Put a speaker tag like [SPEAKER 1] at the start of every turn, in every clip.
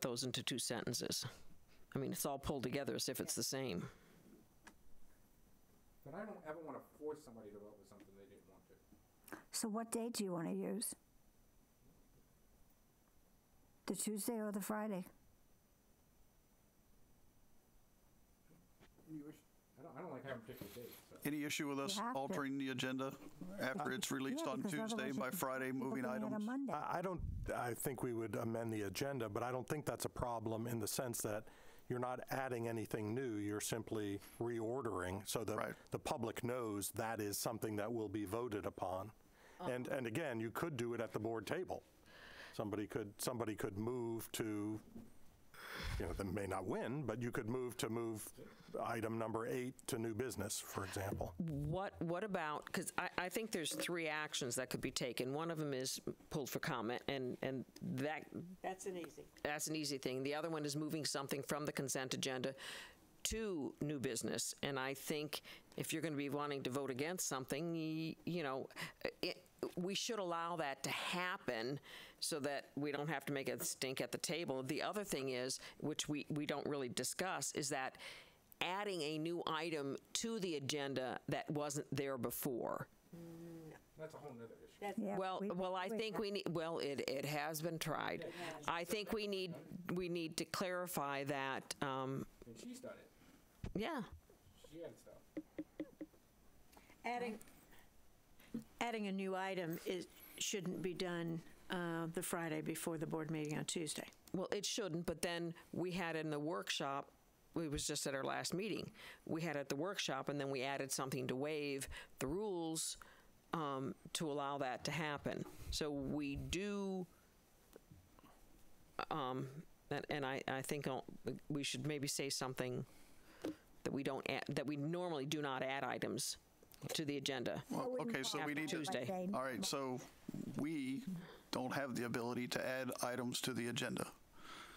[SPEAKER 1] those into two sentences. I mean, it's all pulled together as if it's the same.
[SPEAKER 2] But I don't ever want to force somebody to vote with something they didn't want to.
[SPEAKER 3] So what date do you want to use? The Tuesday or the Friday?
[SPEAKER 2] I don't, I don't like having particular dates, so.
[SPEAKER 4] Any issue with us
[SPEAKER 3] have to.
[SPEAKER 4] altering the agenda after it's released
[SPEAKER 3] Yeah,
[SPEAKER 4] on
[SPEAKER 3] because
[SPEAKER 4] Tuesday
[SPEAKER 3] otherwise
[SPEAKER 4] by
[SPEAKER 3] you-
[SPEAKER 4] Friday,
[SPEAKER 3] people
[SPEAKER 4] moving
[SPEAKER 3] can add
[SPEAKER 4] items?
[SPEAKER 3] A Monday.
[SPEAKER 5] Ah,
[SPEAKER 6] I I don't, I think we would amend the agenda, but I don't think that's a problem in the sense that you're not adding anything new, you're simply reordering so
[SPEAKER 4] Right.
[SPEAKER 6] that the public knows that is something that will be voted upon. And, and again, you could do it at the board table. Somebody could, somebody could move to, you know, they may not win, but you could move to move item number eight to new business, for example.
[SPEAKER 1] What, what about, because I, I think there's three actions that could be taken. One of them is pulled for comment, and, and that,
[SPEAKER 7] That's an easy.
[SPEAKER 1] that's an easy thing. The other one is moving something from the consent agenda to new business. And I think if you're going to be wanting to vote against something, y- you know, it, we should allow that to happen so that we don't have to make a stink at the table. The other thing is, which we, we don't really discuss, is that adding a new item to the agenda that wasn't there before.
[SPEAKER 2] That's a whole nother issue.
[SPEAKER 7] That's,
[SPEAKER 3] Yeah,
[SPEAKER 1] Well,
[SPEAKER 3] we-
[SPEAKER 1] well, I
[SPEAKER 3] we-
[SPEAKER 1] think we need, well, it, it has been tried. I think we need, we need to clarify that, um,
[SPEAKER 2] And she's done it.
[SPEAKER 1] yeah.
[SPEAKER 2] She had stuff.
[SPEAKER 7] adding, adding a new item is, shouldn't be done uh, the Friday before the board meeting on Tuesday.
[SPEAKER 1] Well, it shouldn't, but then we had in the workshop, it was just at our last meeting, we had at the workshop, and then we added something to waive the rules um, to allow that to happen. So we do, um, and- and I, I think I'll- we should maybe say something that we don't, add- that we normally do not add items to the agenda.
[SPEAKER 4] Well, Okay, so we need to.
[SPEAKER 1] Tuesday.
[SPEAKER 4] All right, so we don't have the ability to add items to the agenda.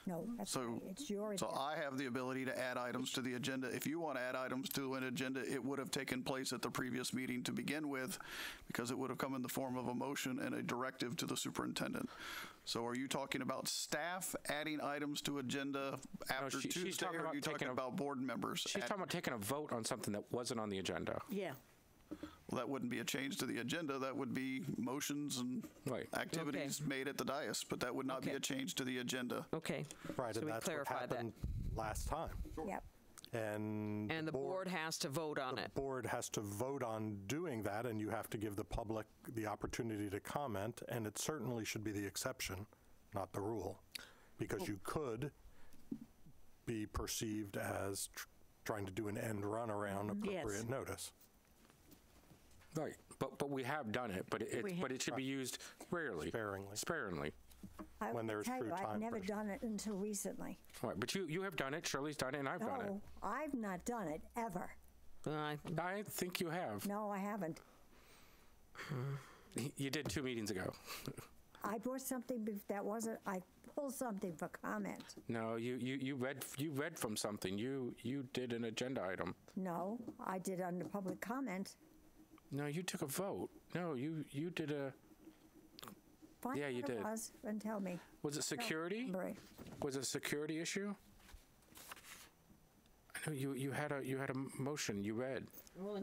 [SPEAKER 3] No, that's
[SPEAKER 4] So,
[SPEAKER 3] right. It's yours.
[SPEAKER 4] so I have the ability to add items to the agenda. If you want to add items to an agenda, it would have taken place at the previous meeting to begin with because it would have come in the form of a motion and a directive to the superintendent. So are you talking about staff adding items to agenda after
[SPEAKER 5] she- she's
[SPEAKER 4] Tuesday?
[SPEAKER 5] talking
[SPEAKER 4] Or are
[SPEAKER 5] about
[SPEAKER 4] you talking
[SPEAKER 5] taking a-
[SPEAKER 4] about board members?
[SPEAKER 5] She's
[SPEAKER 4] add-
[SPEAKER 5] talking about taking a vote on something that wasn't on the agenda.
[SPEAKER 7] Yeah.
[SPEAKER 4] Well, That wouldn't be a change to the agenda. That would be motions and
[SPEAKER 5] Right.
[SPEAKER 4] activities made at the dais, but that would not be
[SPEAKER 1] Okay.
[SPEAKER 4] a change to the agenda.
[SPEAKER 1] Okay.
[SPEAKER 6] Right,
[SPEAKER 1] So
[SPEAKER 6] and
[SPEAKER 1] we
[SPEAKER 6] that's what
[SPEAKER 1] clarify that.
[SPEAKER 6] happened last time.
[SPEAKER 3] Yep.
[SPEAKER 6] And.
[SPEAKER 1] And the board has to vote on it.
[SPEAKER 6] board has to vote on doing that, and you have to give the public the opportunity to comment, and it certainly should be the exception, not the rule, because you could be perceived as tr- trying to do an end run around appropriate notice.
[SPEAKER 5] Right. But but we have done it. But it,
[SPEAKER 7] We
[SPEAKER 5] it
[SPEAKER 7] have.
[SPEAKER 5] but it should be used rarely.
[SPEAKER 6] Sparingly.
[SPEAKER 5] Sparingly.
[SPEAKER 3] I
[SPEAKER 6] when
[SPEAKER 3] will
[SPEAKER 6] there's
[SPEAKER 3] tell
[SPEAKER 6] true
[SPEAKER 3] you, I've
[SPEAKER 6] time
[SPEAKER 3] never
[SPEAKER 6] pressure.
[SPEAKER 3] done it until recently.
[SPEAKER 5] Right. But you you have done it. Shirley's done it, and I've done
[SPEAKER 3] No,
[SPEAKER 5] it.
[SPEAKER 3] I've not done it ever.
[SPEAKER 1] Well, I-
[SPEAKER 5] I think you have.
[SPEAKER 3] No, I haven't.
[SPEAKER 5] You did two meetings ago.
[SPEAKER 3] I brought something bef- that wasn't, I pulled something for comment.
[SPEAKER 5] No, you, you, you read you read from something. You you did an agenda item.
[SPEAKER 3] No, I did under public comment.
[SPEAKER 5] No, you took a vote. No, you you did a
[SPEAKER 3] Find
[SPEAKER 5] Yeah,
[SPEAKER 3] out
[SPEAKER 5] you
[SPEAKER 3] what it
[SPEAKER 5] did.
[SPEAKER 3] was and tell me.
[SPEAKER 5] was it security?
[SPEAKER 3] Remember.
[SPEAKER 5] Was it a security issue? I know you you had a you had a motion. You read.
[SPEAKER 3] Oh,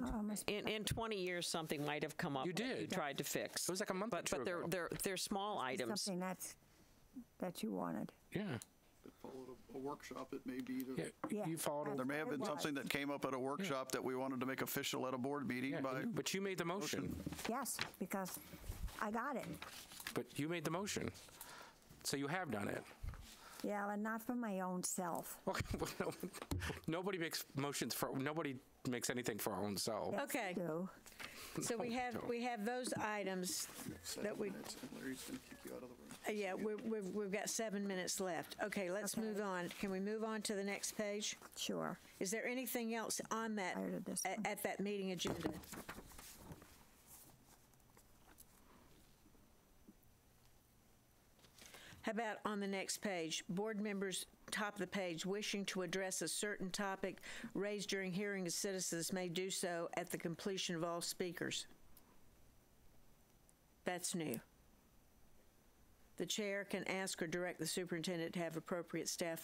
[SPEAKER 1] In, in 20 years, something might have come up.
[SPEAKER 5] You
[SPEAKER 1] that
[SPEAKER 5] did.
[SPEAKER 1] tried to fix.
[SPEAKER 5] It was like a month or
[SPEAKER 1] But,
[SPEAKER 5] two
[SPEAKER 1] but they're,
[SPEAKER 5] ago.
[SPEAKER 1] they're, they're small items.
[SPEAKER 3] Something that's, that you wanted.
[SPEAKER 5] Yeah.
[SPEAKER 4] Followed a workshop, it may be
[SPEAKER 5] Yeah.
[SPEAKER 3] Yeah.
[SPEAKER 5] You followed. a-
[SPEAKER 4] There may have been
[SPEAKER 3] It
[SPEAKER 4] something that came up at a workshop that we wanted to make official at a board meeting
[SPEAKER 5] Yeah,
[SPEAKER 4] by,
[SPEAKER 5] but you made the motion.
[SPEAKER 3] Yes, because I got it.
[SPEAKER 5] But you made the motion. So you have done it.
[SPEAKER 3] Yeah, and not for my own self.
[SPEAKER 5] Okay, well, no, nobody makes motions for nobody makes anything for our own self.
[SPEAKER 3] Yes,
[SPEAKER 7] Okay.
[SPEAKER 3] you do.
[SPEAKER 7] So we have, we have those items that we,
[SPEAKER 4] Larry's going to kick you out of the room.
[SPEAKER 7] uh, yeah, we- we've, we've got seven minutes left. Okay, let's move on. Can we move on to the next page?
[SPEAKER 3] Sure.
[SPEAKER 7] Is there anything else on that,
[SPEAKER 3] Tired of this
[SPEAKER 7] at-
[SPEAKER 3] one.
[SPEAKER 7] at that meeting agenda? How about on the next page, board members, top of the page, wishing to address a certain topic raised during hearing of citizens may do so at the completion of all speakers. That's new. The chair can ask or direct the superintendent to have appropriate staff